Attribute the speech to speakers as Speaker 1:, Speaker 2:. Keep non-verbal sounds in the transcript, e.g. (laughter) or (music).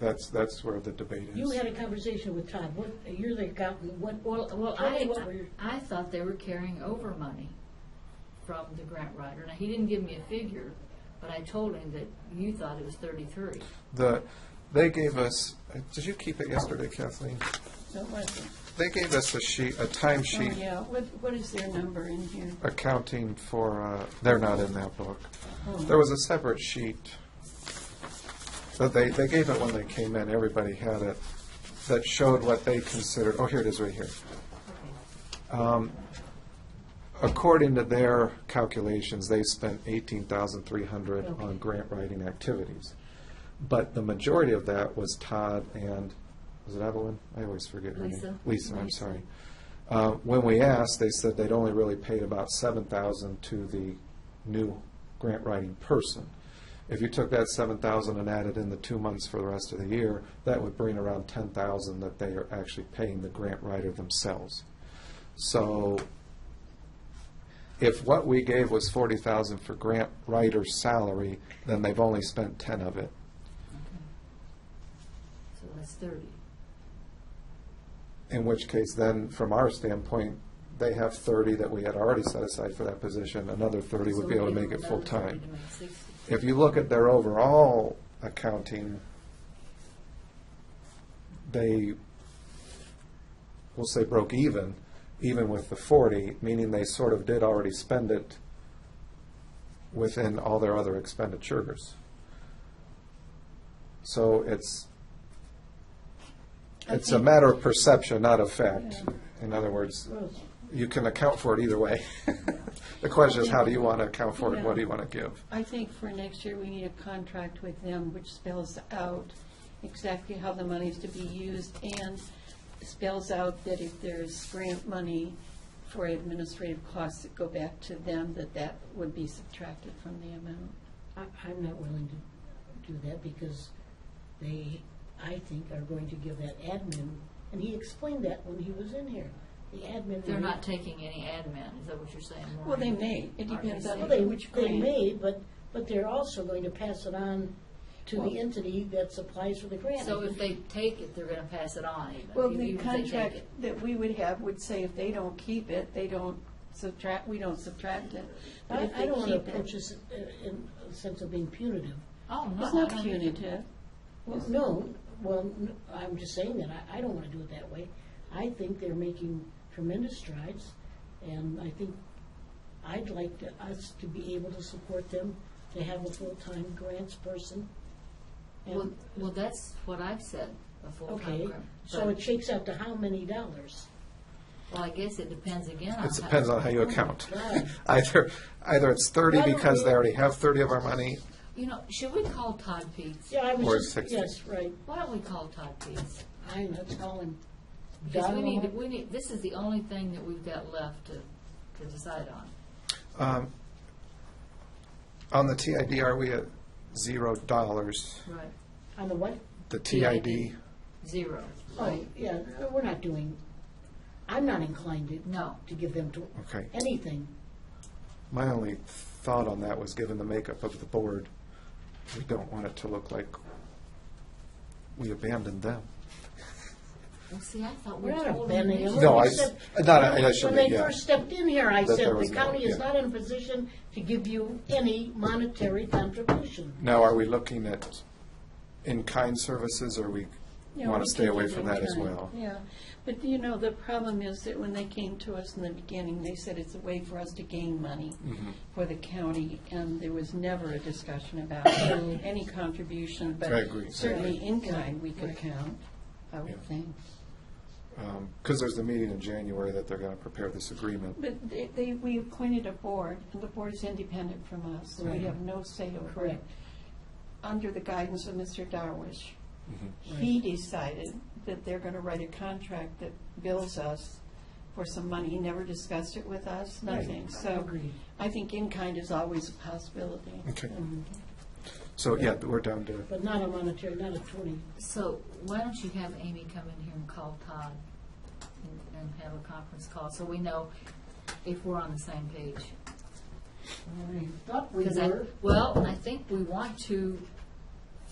Speaker 1: That's, that's where the debate is.
Speaker 2: You had a conversation with Todd, what, you're the accountant, what,
Speaker 3: Well, well,
Speaker 2: Tell me
Speaker 3: I,
Speaker 2: what we're-
Speaker 3: I thought they were carrying over money from the grant writer. Now, he didn't give me a figure, but I told him that you thought it was thirty-three.
Speaker 1: The, they gave us, did you keep it yesterday, Kathleen?
Speaker 4: So what,
Speaker 1: They gave us a sheet, a
Speaker 4: oh,
Speaker 1: timesheet
Speaker 4: yeah, what, what is their number in here?
Speaker 1: accounting for, uh, they're not in that book. There was a separate sheet. But they, they gave it when they came in, everybody had it, that showed what they considered, oh, here it is right here. Um, According to their calculations, they spent eighteen thousand three hundred on grant writing activities. But the majority of that was Todd and, was it Evelyn? I always forget her name.
Speaker 3: Lisa.
Speaker 1: Lisa, I'm
Speaker 3: Lisa.
Speaker 1: sorry. Uh, When we asked, they said they'd only really paid about seven thousand to the new grant writing person. If you took that seven thousand and added in the two months for the rest of the year, that would bring around ten thousand that they are actually paying the grant writer themselves. So if what we gave was forty thousand for grant writer's salary, then they've only spent ten of it.
Speaker 3: So that's thirty.
Speaker 1: In which case, then, from our standpoint, they have thirty that we had already set aside for that position, another thirty
Speaker 3: So
Speaker 1: would be able to
Speaker 3: we
Speaker 1: make it
Speaker 3: give them another 30
Speaker 1: full-time.
Speaker 3: to make 60.
Speaker 1: If you look at their overall accounting, they, we'll say broke even, even with the forty, meaning they sort of did already spend it within all their other expenditures. So it's,
Speaker 4: I
Speaker 1: it's a
Speaker 4: think-
Speaker 1: matter of perception, not of fact. In other words,
Speaker 2: Rose,
Speaker 1: you can account for it either way. (laughs) The question is, how do you want to account for it, what do you want to give?
Speaker 4: I think for next year, we need a contract with them which spells out exactly how the money is to be used and spells out that if there's grant money for administrative costs that go back to them, that that would be subtracted from the amount.
Speaker 2: I, I'm not willing to do that because they, I think, are going to give that admin, and he explained that when he was in here, the admin.
Speaker 3: They're not taking any admin, is that what you're saying?
Speaker 4: Well, they
Speaker 3: Maureen?
Speaker 4: may, it depends
Speaker 3: Are
Speaker 4: on
Speaker 3: they
Speaker 2: Well, they,
Speaker 4: which
Speaker 2: they
Speaker 4: grant.
Speaker 2: may, but, but they're also going to pass it on to
Speaker 4: Well-
Speaker 2: the entity that supplies for the grant.
Speaker 3: So if they take it, they're gonna pass it on even.
Speaker 4: Well,
Speaker 3: even
Speaker 4: the
Speaker 3: if they take
Speaker 4: contract
Speaker 3: it.
Speaker 4: that we would have would say if they don't keep it, they don't subtract, we don't subtract it. But
Speaker 2: I,
Speaker 4: if
Speaker 2: I
Speaker 4: they
Speaker 2: don't want to
Speaker 4: keep
Speaker 2: approach
Speaker 4: it,
Speaker 2: this uh, in a sense of being punitive.
Speaker 3: Oh, no.
Speaker 4: it's
Speaker 3: I
Speaker 4: not
Speaker 3: don't think-
Speaker 4: punitive.
Speaker 2: Well, no, well, n- I'm just saying that, I, I don't want to do it that way. I think they're making tremendous strides, and I think I'd like to, us to be able to support them, to have a full-time grants person.
Speaker 3: Well,
Speaker 2: And,
Speaker 3: well, that's what I've said, a full-time
Speaker 2: okay,
Speaker 3: grant.
Speaker 2: so it shakes out to how many dollars?
Speaker 3: Well, I guess it depends again on.
Speaker 1: It
Speaker 3: how-
Speaker 1: depends on how you account.
Speaker 2: God.
Speaker 1: Either, either it's thirty
Speaker 2: Why don't
Speaker 1: because they
Speaker 2: we-
Speaker 1: already have thirty of our money,
Speaker 3: You know, should we call Todd Peets?
Speaker 2: Yeah, I
Speaker 1: Or
Speaker 2: was just,
Speaker 1: 60.
Speaker 2: yes, right,
Speaker 3: Why don't we call Todd Peets?
Speaker 2: I, let's call him.
Speaker 3: Because we
Speaker 2: Donald.
Speaker 3: need, we need, this is the only thing that we've got left to, to decide on.
Speaker 1: um, on the TID, are we at zero dollars?
Speaker 3: Right.
Speaker 2: On the what?
Speaker 1: The TID,
Speaker 3: Zero.
Speaker 2: Oh, yeah, we're not doing, I'm not inclined to,
Speaker 3: No.
Speaker 2: to give them to,
Speaker 1: okay.
Speaker 2: anything.
Speaker 1: My only thought on that was, given the makeup of the board, we don't want it to look like we abandoned them.
Speaker 3: Well, see, I thought we
Speaker 2: We're not
Speaker 3: told him.
Speaker 2: abandoning them.
Speaker 3: this.
Speaker 1: No,
Speaker 2: When
Speaker 1: I,
Speaker 2: they
Speaker 1: s-
Speaker 2: said-
Speaker 1: not, I I shouldn't,
Speaker 2: When they
Speaker 1: yeah.
Speaker 2: first stepped in here, I
Speaker 1: That there
Speaker 2: said,
Speaker 1: was
Speaker 2: the
Speaker 1: no-
Speaker 2: county is
Speaker 1: yeah.
Speaker 2: not in a position to give you any monetary contribution.
Speaker 1: Now, are we looking at in-kind services, or we
Speaker 4: Yeah, we
Speaker 1: want to stay
Speaker 4: can
Speaker 1: away
Speaker 4: do
Speaker 1: from
Speaker 4: that,
Speaker 1: that as
Speaker 2: right.
Speaker 1: well?
Speaker 4: Yeah, but you know, the problem is that when they came to us in the beginning, they said it's a way for us to gain money
Speaker 1: Mm-hmm.
Speaker 4: for the county, and there was never a discussion about any contribution, but
Speaker 1: I agree.
Speaker 4: certainly in kind we could count, I would
Speaker 1: Yeah.
Speaker 4: think.
Speaker 1: Because Um, there's the meeting in January that they're going to prepare this agreement.
Speaker 4: But they- they, we appointed a board, and the board is independent from us, so we
Speaker 2: Right.
Speaker 4: have no say over it.
Speaker 2: Correct.
Speaker 4: Under the guidance of Mr. Darwish,
Speaker 2: Mm-hmm.
Speaker 4: he decided that they're going to write a contract that bills us for some money. He never discussed it with us, nothing. So
Speaker 2: Agreed.
Speaker 4: I think in-kind is always a possibility.
Speaker 1: Okay. So, yeah, we're down to,
Speaker 2: But not a monetary, not a twenty.
Speaker 3: So why don't you have Amy come in here and call Todd and- and have a conference call, so we know if we're on the same page?
Speaker 2: I thought we
Speaker 3: Because I-
Speaker 2: were.
Speaker 3: Well, I think we want to